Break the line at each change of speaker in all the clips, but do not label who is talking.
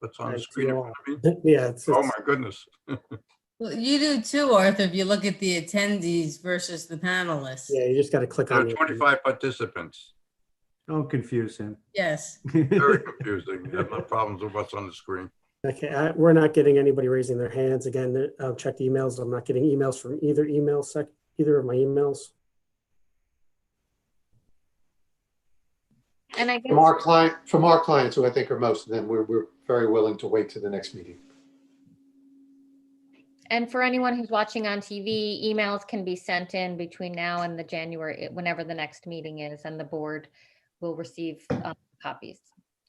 what's on the
That's
screen in
long.
front of me.
Yeah, it's,
Oh,
it's-
my goodness.
Well, you do too, Arthur, if you look at the attendees versus the panelists.
yeah, you just gotta click
There
on
are
it.
25 participants.
Don't confuse him.
Yes.
Very confusing. I have no problems with what's on the screen.
Okay, I, we're not getting anybody raising their hands. Again, the- I've checked emails. I'm not getting emails from either email sec, either of my emails.
And I guess,
From our client, from our clients, who I think are most of them, we're, we're very willing to wait to the next meeting.
and for anyone who's watching on TV, emails can be sent in between now and the January, whenever the next meeting is, and the board will receive um, copies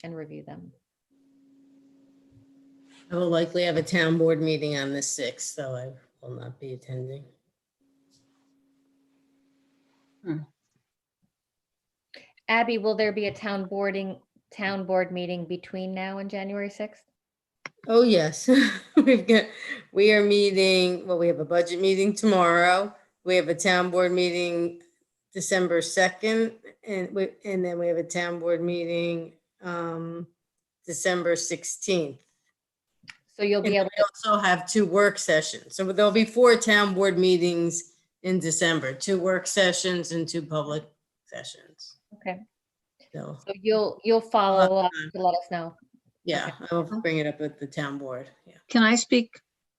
and review them.
I will likely have a town board meeting on the 6th, so I will not be attending.
Abby, will there be a town boarding, town board meeting between now and January 6th?
Oh, yes. We've got, we are meeting, well, we have a budget meeting tomorrow. We have a town board meeting December 2nd, and we, and then we have a town board meeting um December 16th.
So you'll
And
be able,
we also have two work sessions. So there'll be four town board meetings in December, two work sessions and two public sessions.
okay,
So,
so you'll, you'll follow up to let us know.
yeah, I will bring it up with the town board. Yeah.
Can I speak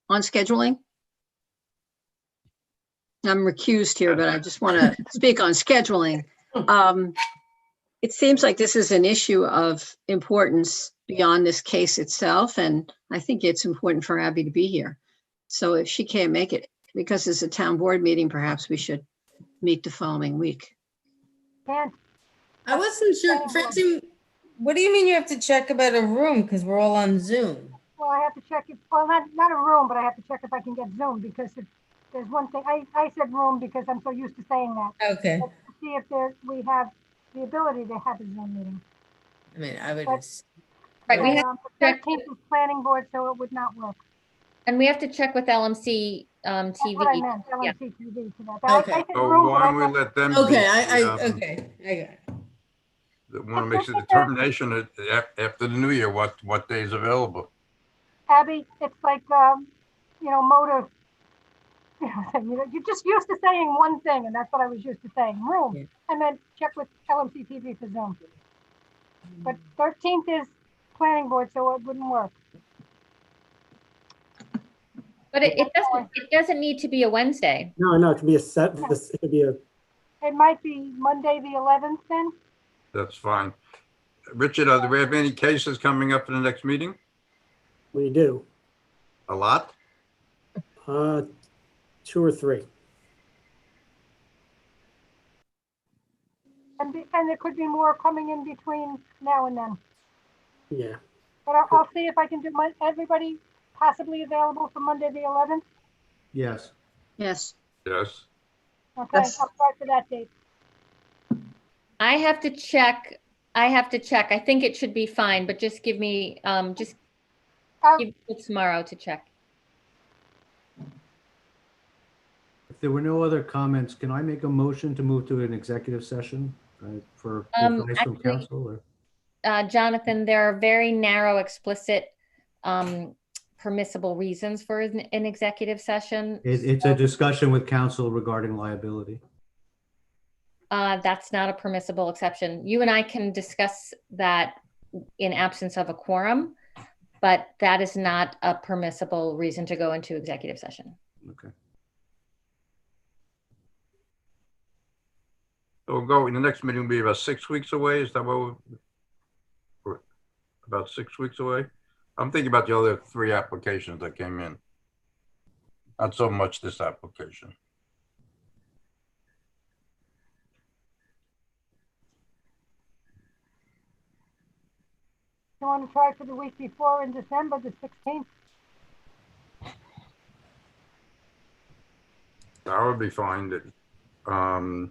on scheduling? I'm recused here, but I just want to speak on scheduling. Um, It seems like this is an issue of importance beyond this case itself, and I think it's important for Abby to be here. So if she can't make it, because it's a town board meeting, perhaps we should meet the following week.
I wasn't sure, Francine, what do you mean you have to check about a room? Because we're all on Zoom.
Well, I have to check if, well, not, not a room, but I have to check if I can get Zoom because if, there's one thing, I, I said room because I'm so used to saying that.
Okay.
See if there, we have the ability to have a Zoom meeting.
I mean, I would,
But-
just-
Right, we have,
Um, but
check-
That came from planning board, so it would not work.
and we have to check with LMC um,
That's what I
TV.
meant, LMC TV for that. But I- I
Okay.
said
So
room, but
why
I
don't
thought-
we let them?
okay, I, I,
um,
okay, I got it.
That want to make the determination at- af- after the new year, what, what day is available.
Abby, it's like, um, you know, motor. You know, You're just used to saying one thing and that's what I was used to saying,
Yeah.
room. And then check with LMC TV for Zoom. But thirteenth is planning board, so it wouldn't work.
But it it doesn't, it doesn't need to be a Wednesday.
No, no, it could be a set, this, it could be a,
It might be Monday, the eleventh then.
That's fine. Richard, are there- we have any cases coming up in the next meeting?
we do,
A lot?
uh, two or three.
And, be- and there could be more coming in between now and then.
Yeah,
But I'll, I'll see if I can do my, everybody possibly available for Monday, the eleventh.
Yes.
Yes,
Yes.
Okay, I'll
Yes.
start for that date.
I have to check, I have to check. I think it should be fine, but just give me, um, just
Um,
give me tomorrow to check.
If there were no other comments, can I make a motion to move to an executive session uh, for
Um,
advice from
actually-
counsel or?
Uh, Jonathan, there are very narrow, explicit, um, permissible reasons for an, an executive session.
It, it's a discussion with counsel regarding liability.
Uh, that's not a permissible exception. You and I can discuss that in absence of a quorum, but that is not a permissible reason to go into executive session.
Okay.
So we'll go, the next meeting will be about six weeks away, is that what? we- we're- About six weeks away? I'm thinking about the other three applications that came in. Not so much this application.
You want to try for the week before in December, the sixteenth?
That would be fine, that, um,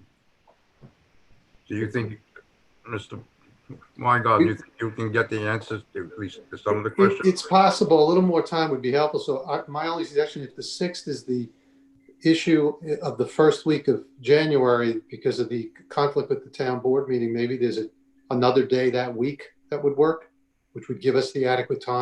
do you think, Mr. Weingarten, you think you can get the answers to at least to some of the
It-
questions?
It's possible, a little more time would be helpful, so I- my only suggestion, if the 6th is the issue of the first week of January because of the conflict with the town board meeting, maybe there's a- another day that week that would work, which would give us the adequate time